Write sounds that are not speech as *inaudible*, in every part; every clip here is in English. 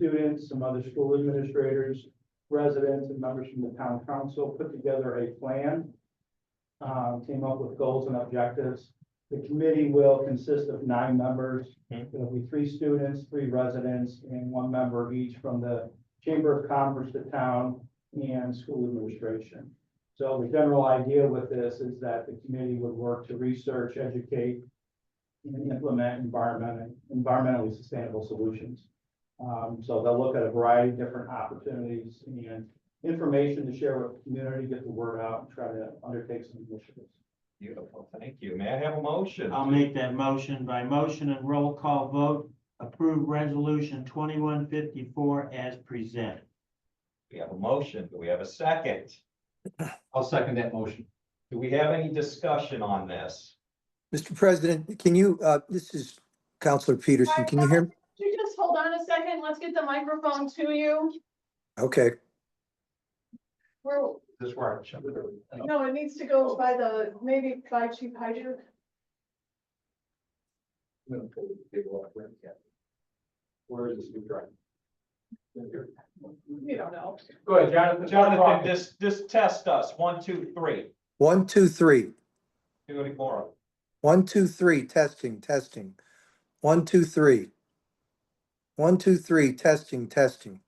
students, some other school administrators, residents, and members from the town council, put together a plan. um, came up with goals and objectives. The committee will consist of nine members. Hmm. It'll be three students, three residents, and one member each from the Chamber of Commerce, the town, and school administration. So the general idea with this is that the committee would work to research, educate, and implement environment, environmentally sustainable solutions. Um, so they'll look at a variety of different opportunities and information to share with the community, get the word out, and try to undertake some initiatives. Beautiful, thank you. May I have a motion? I'll make that motion by motion and roll call vote, approve resolution twenty-one fifty-four as presented. We have a motion, do we have a second? *clears throat* I'll second that motion. Do we have any discussion on this? Mr. President, can you, uh, this is Counselor Peterson. Can you hear? me? Could you just hold on a second? Let's get the microphone to you. Okay, We're, This works. no, it needs to go by the, maybe by Chief Hyder. Where is this new drive? You don't know. Go ahead, Jonathan. Jonathan, this, this test us, one, two, three, one, two, three. do it more. One, two, three, testing, testing. One, two, three. One, two, three, testing, testing.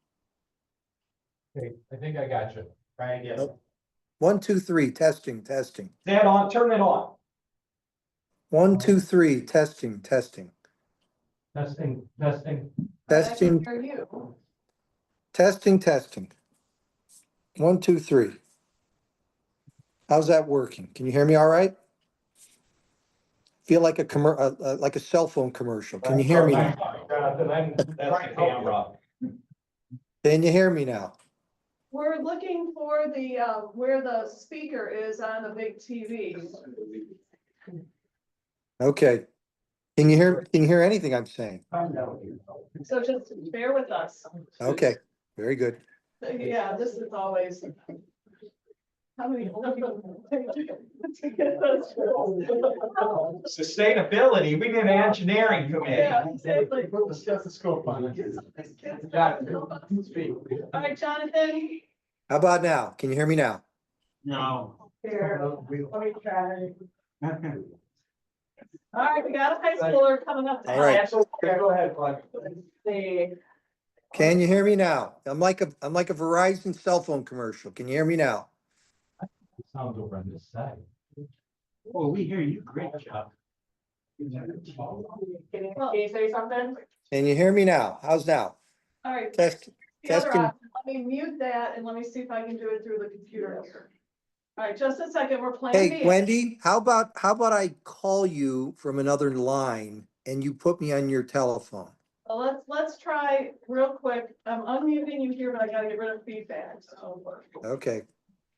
Okay, I think I got you. Right, yes. One, two, three, testing, testing. Is that on, turn it on. One, two, three, testing, testing. Testing, testing. Testing, For you. testing, testing. One, two, three. How's that working? Can you hear me all right? Feel like a commer, uh, uh, like a cell phone commercial. Can you hear me? now? Jonathan, I'm. That's the camera. Can you hear me now? We're looking for the, uh, where the speaker is on the big TV. Okay. Can you hear, can you hear anything I'm saying? So just bear with us. Okay, very good. Yeah, this is always. How many old people to get those roles? Sustainability, we need an engineering Yeah, committee. exactly. Put the stethoscope on. Got it. Speak. All right, Jonathan. How about now? Can you hear me now? No. Here, let me try. All right, we got a high schooler coming up. All right. Go ahead, Clark. Let's see. Can you hear me now? I'm like a, I'm like a Verizon cell phone commercial. Can you hear me now? Sounds over on this side. Well, we hear you. Great job. Can you say something? Can you hear me now? How's now? All right. Test, the other testing. option, Let me mute that and let me see if I can do it through the computer here. All right, just a second, we're playing. hey Wendy, how about, how about I call you from another line and you put me on your telephone? Let's, let's try real quick. I'm unmuting you here, but I gotta get rid of feedback, so. Okay,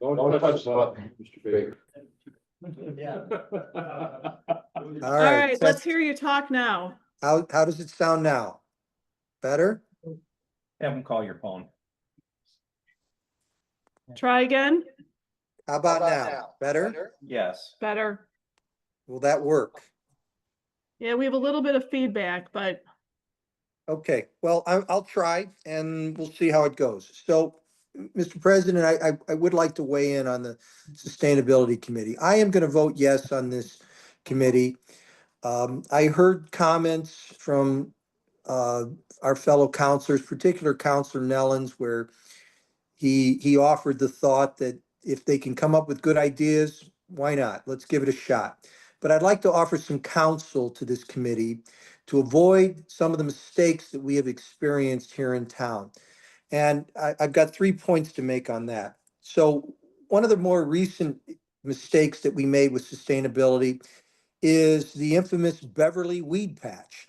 Don't touch the button, Mr. Baker. *laughs* all right. Test- hear you talk now. How, how does it sound now? Better? Have them call your phone. Try again, How about now? Better? Yes. better. Will that work? Yeah, we have a little bit of feedback, but Okay, well, I, I'll try and we'll see how it goes. So, m- Mr. President, I, I, I would like to weigh in on the Sustainability Committee. I am gonna vote yes on this committee. Um, I heard comments from, uh, our fellow counselors, particular Counselor Nellens, where he, he offered the thought that if they can come up with good ideas, why not? Let's give it a shot. But I'd like to offer some counsel to this committee to avoid some of the mistakes that we have experienced here in town. And I, I've got three points to make on that. So one of the more recent mistakes that we made with sustainability is the infamous Beverly Weed Patch.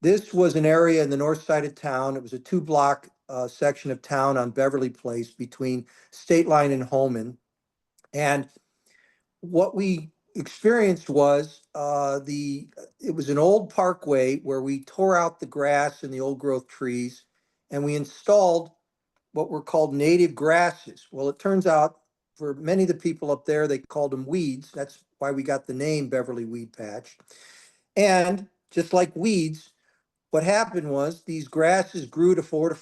This was an area in the north side of town. It was a two-block uh, section of town on Beverly Place between State Line and Holman. And what we experienced was uh, the it was an old parkway where we tore out the grass and the old growth trees and we installed what were called native grasses. Well, it turns out for many of the people up there, they called them weeds. That's why we got the name Beverly Weed Patch. And just like weeds, what happened was these grasses grew to four to